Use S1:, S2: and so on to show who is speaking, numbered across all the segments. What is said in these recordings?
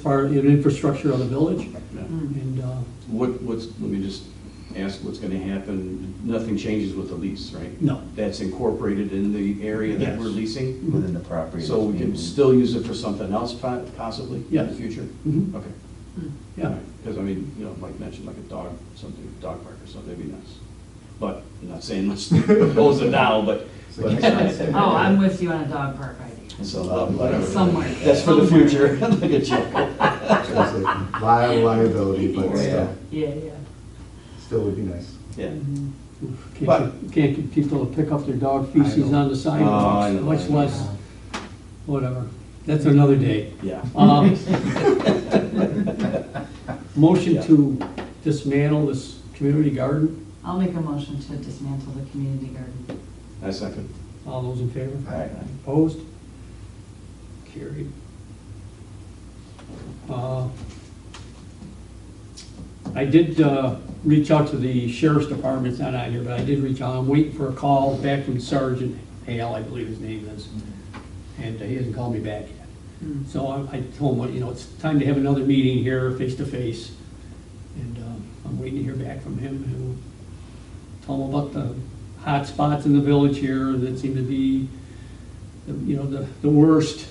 S1: far in infrastructure of the village,
S2: Mm.
S1: and, uh,
S2: What, what's, let me just ask what's gonna happen, nothing changes with the lease, right?
S1: no,
S2: That's incorporated in the area that we're
S1: Yes.
S2: leasing,
S3: within the property.
S2: so we can still use it for something else po- possibly in the
S1: Yes.
S2: future?
S1: Mhm.
S2: Okay.
S1: yeah,
S2: Because I mean, you know, Mike mentioned like a dog, something, dog park or something, that'd be nice. But, I'm not saying let's close it now, but, but it's nice.
S4: Oh, I'm with you on a dog park idea,
S2: So, uh, whatever.
S4: somewhere.
S2: That's for the
S4: somewhere.
S2: future. Look at you.
S5: Liable liability, but still,
S4: Yeah, yeah.
S5: still would be nice.
S2: Yeah. But-
S1: can't, can't people pick up their dog feces
S5: know.
S1: on the sidewalks,
S2: know, I
S1: much
S2: know.
S1: less, whatever, that's another day.
S2: Yeah.
S1: Um, Motion to dismantle this community garden,
S4: I'll make a motion to dismantle the community garden.
S2: I second.
S1: all those in favor?
S2: All right.
S1: Opposed? Carried. Uh, I did uh, reach out to the sheriff's department, it's not on here, but I did reach out, I'm waiting for a call back from Sergeant Hale, I believe his name is, and he hasn't called me back yet. So I I told him, you know, it's time to have another meeting here, face to face, and um, I'm waiting to hear back from him, and we'll tell him about the hot spots in the village here that seem to be, the- you know, the, the worst.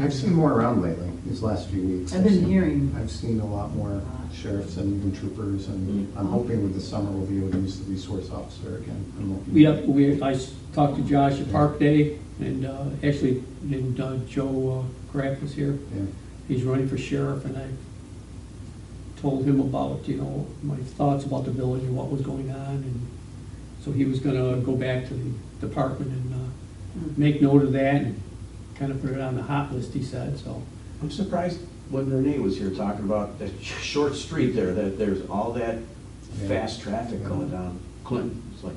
S5: I've seen more around lately, these last few weeks.
S4: I've been
S5: seen-
S4: hearing.
S5: I've seen a lot more sheriffs and even troopers,
S4: Mm-hmm.
S5: and I'm hoping with the summer we'll be able to use the resource officer again. I'm hoping-
S1: We, have- we, I s- talked to Josh at Park Day, and uh, actually, and uh, Joe uh, Kraft was here.
S5: Yeah.
S1: He's running for sheriff, and I told him about, you know, my thoughts about the village and what was going on, and so he was gonna go back to the department and uh, make note of that, and kind of put it on the hot list, he said, so.
S2: I'm surprised when Renee was here talking about that sh- short street there, that there's all that
S5: Yeah.
S2: fast traffic going down Clinton. It's like,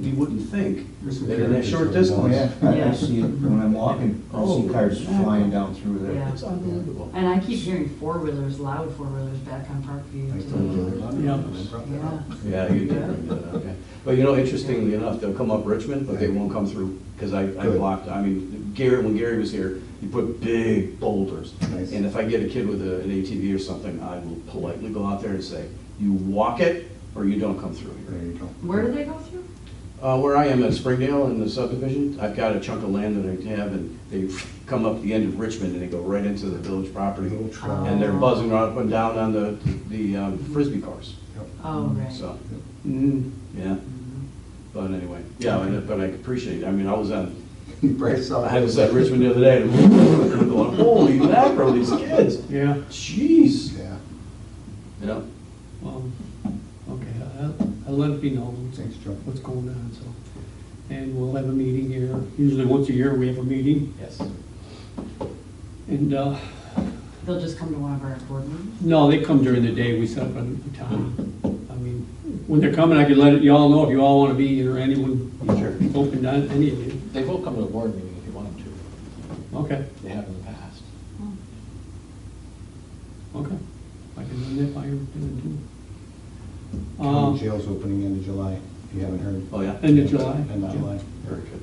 S2: you wouldn't think
S5: There's some
S2: that in that
S5: characters
S2: short
S5: that are
S2: distance.
S5: going-
S3: Yeah, I
S4: Yeah. Oh.
S3: I see it when I'm walking, I see cars flying down through there.
S4: Yeah.
S2: It's unbelievable.
S4: And I keep hearing four-wheelers, loud four-wheelers back on Parkview.
S5: I
S4: too.
S5: told you about it, and
S1: Yeah.
S5: I brought that up.
S4: Yeah.
S2: Yeah, you did bring that up, yeah. But you know, interestingly enough, they'll come up Richmond, but they won't come through, because I, I
S5: Good.
S2: blocked, I mean, Gary, when Gary was here, he put big boulders.
S5: Nice.
S2: And if I get a kid with a- an ATV or something, I will politely go out there and say, you walk it, or you don't come through here.
S5: There you go.
S4: Where do they go through?
S2: Uh, where I am at Springdale in the subdivision, I've got a chunk of land that I have, and they come up the end of Richmond, and they go right into the village property.
S5: Little
S4: Oh.
S5: trail.
S2: And they're buzzing up and down on the, the um, frisbee cars,
S5: Yep.
S4: Oh, right.
S2: so,
S1: mm,
S2: yeah. But anyway, yeah, and- but I appreciate it, I mean, I was on,
S5: You probably saw.
S2: I was at Richmond the other day, and I'm going, holy mackerel, these kids,
S1: Yeah,
S2: jeez,
S5: Yeah,
S2: you know?
S1: well, Um, okay, I'll, I'll let it be known
S5: thanks, Joe.
S1: what's going on, so. And we'll have a meeting here, usually once a year we have a meeting,
S2: Yes.
S1: and, uh,
S4: They'll just come to one of our board meetings?
S1: No, they come during the day, we set up a a time. I mean, when they're coming, I could let it- y'all know if you all want to be here, anyone
S2: Sure.
S1: open, to any of you.
S6: They will come to a board meeting if you want them to.
S1: Okay,
S6: They have in the past.
S1: okay. I can run that by you. then, too.
S5: County
S2: Uh-huh.
S1: Um,
S5: jail's opening end of July, if you haven't heard.
S2: Oh, yeah,
S1: End of July.
S5: End of July.
S2: very good.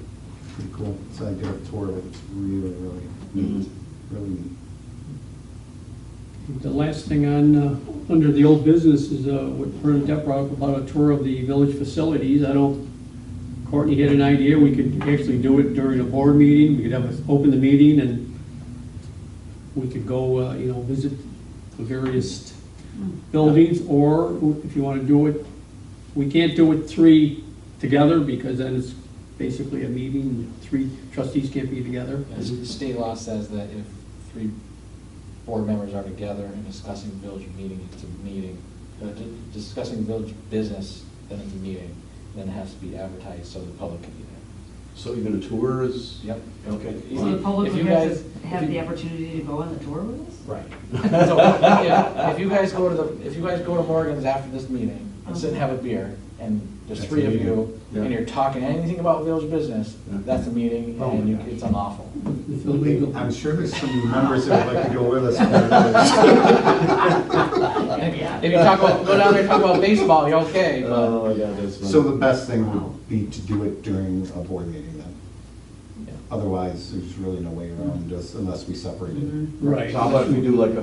S5: Pretty cool. So I did a tour of it. It's really, really neat, really neat.
S1: The last thing on, uh, under the old business is uh, what Bernadette brought up about a tour of the village facilities. I don't, Courtney had an idea, we could actually do it during a board meeting, we could have, us open the meeting and we could go, uh, you know, visit the various buildings, or if you want to do it, we can't do it three together because then it's basically a meeting, three trustees can't be together.
S6: As the state law says that if three board members are together and discussing village meeting, it's a meeting. Uh, di- Discussing village business, then it's a meeting, then it has to be advertised so the public can be there.
S2: So even a tour is?
S6: Yep.
S2: Okay.
S4: So the
S6: If
S4: public
S6: you
S4: would have
S6: guys-
S4: to have
S6: if
S4: the
S6: you-
S4: opportunity to go on the tour with us?
S6: Right. So, yeah, if you guys go to the, if you guys go to Morgan's after this meeting and sit and have a beer, and there's
S5: That's
S6: three
S5: a
S6: of
S5: meeting.
S6: you, and
S2: Yeah.
S6: you're talking anything about village business, that's a meeting,
S2: Oh my
S6: and you-
S2: gosh.
S6: it's unlawful.
S1: It's illegal.
S5: I'm sure there's some members that would like to go with us.
S6: If if you talk about, go down there and talk about baseball, you're okay, but,
S5: Uh,
S2: Oh, yeah, that's.
S5: So the best thing would be to do it during a board meeting then.
S6: yeah.
S5: Otherwise, there's really no way around this unless we separate it.
S4: Mhm.
S1: Right.
S2: So how about if we do like a